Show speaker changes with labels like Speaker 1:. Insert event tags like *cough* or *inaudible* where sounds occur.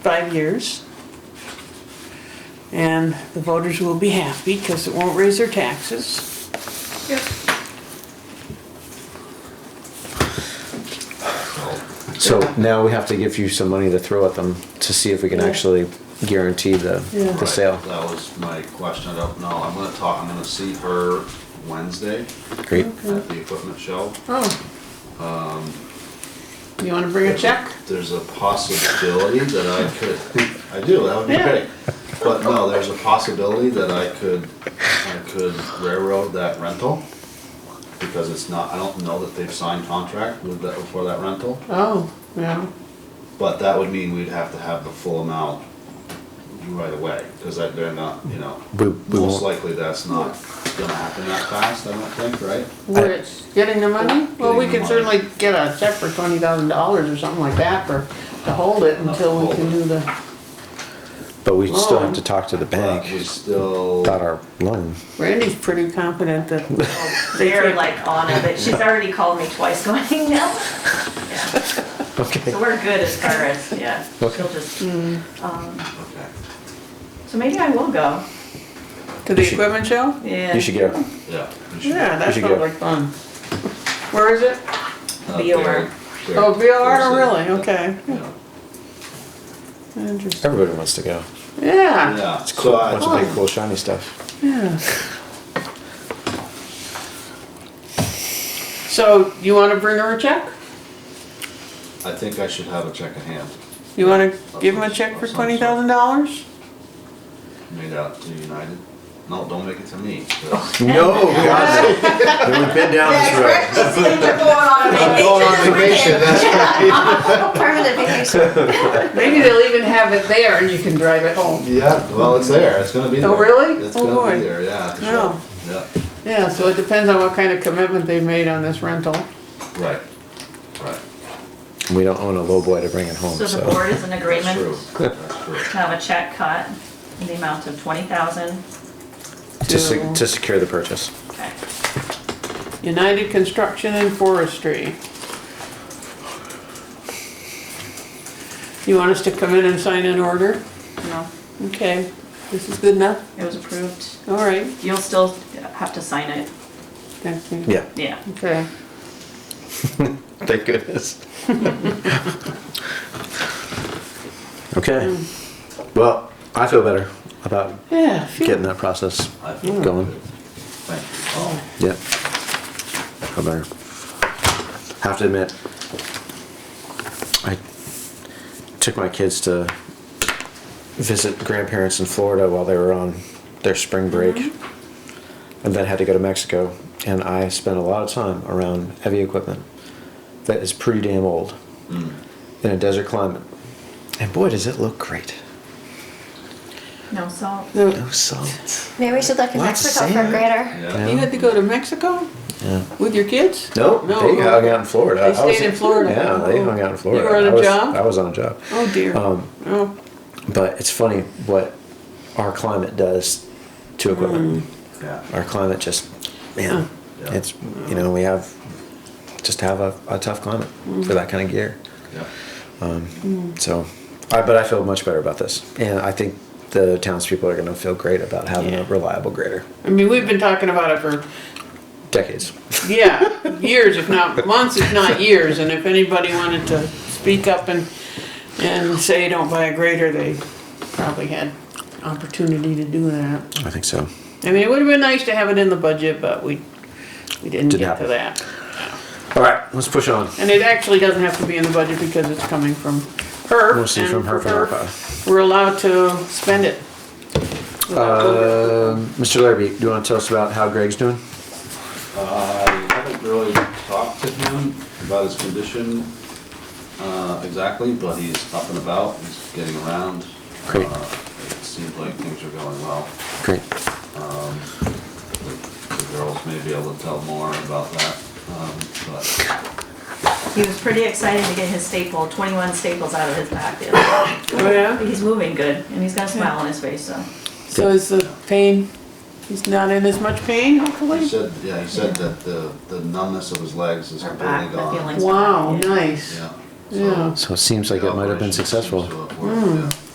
Speaker 1: five years. And the voters will be happy because it won't raise their taxes.
Speaker 2: So now we have to give you some money to throw at them to see if we can
Speaker 1: Yeah.
Speaker 2: actually guarantee the,
Speaker 1: Yeah.
Speaker 2: the sale.
Speaker 3: Right, That was my question, I don't know, I'm gonna talk, I'm gonna see her Wednesday
Speaker 2: Great.
Speaker 3: at the equipment show.
Speaker 1: Oh. Um, You wanna bring a check?
Speaker 3: There's a possibility that I could, I do, that would be
Speaker 1: Yeah.
Speaker 3: great. But no, there's a possibility that I could, I could railroad that rental. Because it's not, I don't know that they've signed contract with that, for that rental,
Speaker 1: Oh, yeah.
Speaker 3: but that would mean we'd have to have the full amount right away, cause that, they're not, you know.
Speaker 2: We, we won't,
Speaker 3: Most likely that's not gonna happen that fast, I don't think, right?
Speaker 1: Where it's getting the money? Well, we
Speaker 3: Getting
Speaker 1: could
Speaker 3: the money.
Speaker 1: certainly get a check for twenty thousand dollars or something like that for, to hold it until we can do the,
Speaker 2: but we still have to
Speaker 1: Loan.
Speaker 2: talk to the
Speaker 3: But we
Speaker 2: bank
Speaker 3: still,
Speaker 2: about our loan.
Speaker 1: Randy's pretty confident that
Speaker 4: *laughs* They're like on it, but she's already called me twice going, no. Yeah,
Speaker 2: Okay.
Speaker 4: So we're good as far as, yeah, she'll
Speaker 2: Okay.
Speaker 4: just, um,
Speaker 3: okay,
Speaker 4: so maybe I will go.
Speaker 1: To the equipment show?
Speaker 4: Yeah.
Speaker 2: You should
Speaker 4: *laughs*
Speaker 2: go.
Speaker 3: yeah. we should-
Speaker 1: Yeah, that
Speaker 2: should
Speaker 1: sounds
Speaker 2: go.
Speaker 1: like fun. Where is it?
Speaker 3: uh,
Speaker 4: VOR.
Speaker 3: there- there-
Speaker 1: Oh, VOR,
Speaker 3: there's a-
Speaker 1: really? Okay.
Speaker 3: Yeah.
Speaker 1: Interesting.
Speaker 2: Everybody wants to go.
Speaker 1: Yeah,
Speaker 3: Yeah, so
Speaker 2: Bunch
Speaker 3: I,
Speaker 2: of
Speaker 4: Oh.
Speaker 2: big, cool, shiny stuff.
Speaker 1: yeah. So you wanna bring her a check?
Speaker 3: I think I should have a check in hand
Speaker 1: You wanna give him a check for twenty thousand dollars?
Speaker 3: made out to United. No, don't make it to me. 'cause-
Speaker 5: No, God,
Speaker 2: *laughs*
Speaker 5: no. we've been down this road. I'm going on vacation,
Speaker 4: *laughs*
Speaker 5: that's
Speaker 4: Permanent vacation.
Speaker 1: Maybe they'll even have it there and you can drive it home.
Speaker 3: Yeah, well, it's there, it's gonna be there.
Speaker 1: Oh, really?
Speaker 3: It's
Speaker 1: Oh,
Speaker 3: gonna
Speaker 1: boy.
Speaker 3: be there, yeah, for
Speaker 1: No.
Speaker 3: sure, yeah,
Speaker 1: Yeah, so it depends on what kind of commitment they've made on this rental.
Speaker 3: right, right,
Speaker 2: We don't own a lowboy to bring it home,
Speaker 4: So the
Speaker 2: Oh, so.
Speaker 4: board is in
Speaker 3: that's true,
Speaker 4: agreement
Speaker 3: that's true.
Speaker 4: to have a check cut in the amount of twenty thousand.
Speaker 2: To, se- to secure the purchase.
Speaker 4: Okay.
Speaker 1: United Construction and Forestry. You want us to come in and sign an order?
Speaker 4: No,
Speaker 1: Okay, this is good enough?
Speaker 4: it was approved.
Speaker 1: All right,
Speaker 4: You'll still have to sign it.
Speaker 1: thank you.
Speaker 2: Yeah.
Speaker 4: Yeah.
Speaker 1: Okay,
Speaker 2: Thank goodness. *laughs* Okay. Well, I feel better about
Speaker 1: yeah, phew.
Speaker 2: getting that process
Speaker 3: I feel
Speaker 2: going.
Speaker 3: good. Thank you,
Speaker 2: Yep.
Speaker 3: oh,
Speaker 2: I better. Have to admit, I took my kids to visit grandparents in Florida while they were on their spring break, and then had to go to Mexico. And I spent a lot of time around heavy equipment that is pretty damn old in a desert climate. And boy, does it look great!
Speaker 4: No salt.
Speaker 1: No,
Speaker 2: No salt.
Speaker 6: Maybe we should look in
Speaker 2: Lots of
Speaker 6: Mexico for a
Speaker 2: sand.
Speaker 6: grader.
Speaker 3: yeah,
Speaker 1: You had to go to Mexico
Speaker 2: Yeah.
Speaker 1: with your kids?
Speaker 2: Nope,
Speaker 1: No,
Speaker 2: they
Speaker 1: no.
Speaker 2: hung out in Florida.
Speaker 1: They
Speaker 2: I was-
Speaker 1: stayed in Florida.
Speaker 2: Yeah, they hung out in Florida.
Speaker 1: You were on
Speaker 2: a
Speaker 1: a job?
Speaker 2: I was on a job.
Speaker 1: Oh dear,
Speaker 2: Um,
Speaker 1: oh,
Speaker 2: But it's funny what our climate does to equipment.
Speaker 1: Hmm.
Speaker 3: yeah.
Speaker 2: Our climate just, man,
Speaker 3: Yeah.
Speaker 2: it's, you know, we have, just have a, a tough climate
Speaker 1: Hmm.
Speaker 2: for that kind of gear.
Speaker 3: Yeah.
Speaker 2: So, I, but I feel much better about this. And I think the townspeople are going to feel great about having a
Speaker 1: Yeah.
Speaker 2: reliable grader.
Speaker 1: I mean, we've been talking about it for
Speaker 2: Decades.
Speaker 1: Yeah, years, if not months, if not years, and if anybody wanted to speak up and, and say don't buy a grader, they probably had opportunity to do that.
Speaker 2: I think so.
Speaker 1: I mean, it would've been nice to have it in the budget, but we, we didn't
Speaker 2: Didn't
Speaker 1: get to
Speaker 2: happen.
Speaker 1: that.
Speaker 2: All right, let's push on.
Speaker 1: And it actually doesn't have to be in the budget because it's coming from her.
Speaker 2: Mostly
Speaker 1: and
Speaker 2: from her,
Speaker 1: for
Speaker 2: from her.
Speaker 1: We're allowed to spend it.
Speaker 2: Um Mr. Larrabee, do you want to tell us about how Greg's doing?
Speaker 3: I haven't really talked to him about his condition uh, exactly, but he's up and about, he's getting around.
Speaker 2: Great.
Speaker 3: Uh, It seems like things are going well.
Speaker 2: Great.
Speaker 3: The girls may be able to tell more about that, um, but
Speaker 4: He was pretty excited to get his staple, 21 staples out of his back. the other day.
Speaker 1: Oh, *coughs* yeah?
Speaker 4: He's moving good, and he's got a smile on his face, so.
Speaker 1: So is the pain, he's not in as much pain, hopefully?
Speaker 3: he said, yeah, he said that the the numbness of his legs is
Speaker 4: Our
Speaker 3: completely
Speaker 4: back, the
Speaker 3: gone.
Speaker 4: feelings.
Speaker 1: Wow, nice.
Speaker 3: Yeah, so.
Speaker 1: Yeah.
Speaker 2: So it seems like it might have been
Speaker 3: Operation seems
Speaker 2: successful.
Speaker 3: to have worked, yeah.